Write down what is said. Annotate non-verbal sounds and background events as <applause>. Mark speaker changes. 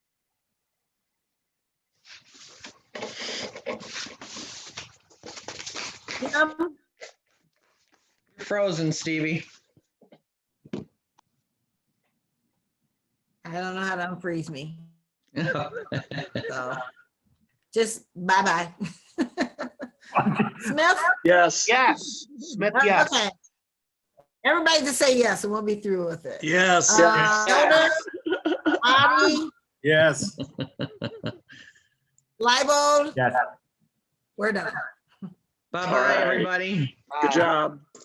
Speaker 1: Jim?
Speaker 2: You're Frozen, Stevie.
Speaker 1: I don't know how to unfreeze me,
Speaker 2: Yes.
Speaker 1: so just
Speaker 3: <laughs>
Speaker 1: bye-bye. Smith?
Speaker 4: Yes.
Speaker 3: Yes. Smith, yes.
Speaker 1: Okay. Everybody just say yes and we'll be through with it.
Speaker 4: Yes.
Speaker 1: Uh,
Speaker 3: Yes.
Speaker 1: Elder, Bobby,
Speaker 5: Yes.
Speaker 1: Leibold?
Speaker 5: Yes.
Speaker 1: We're done.
Speaker 2: Bye-bye, everybody.
Speaker 4: Good job.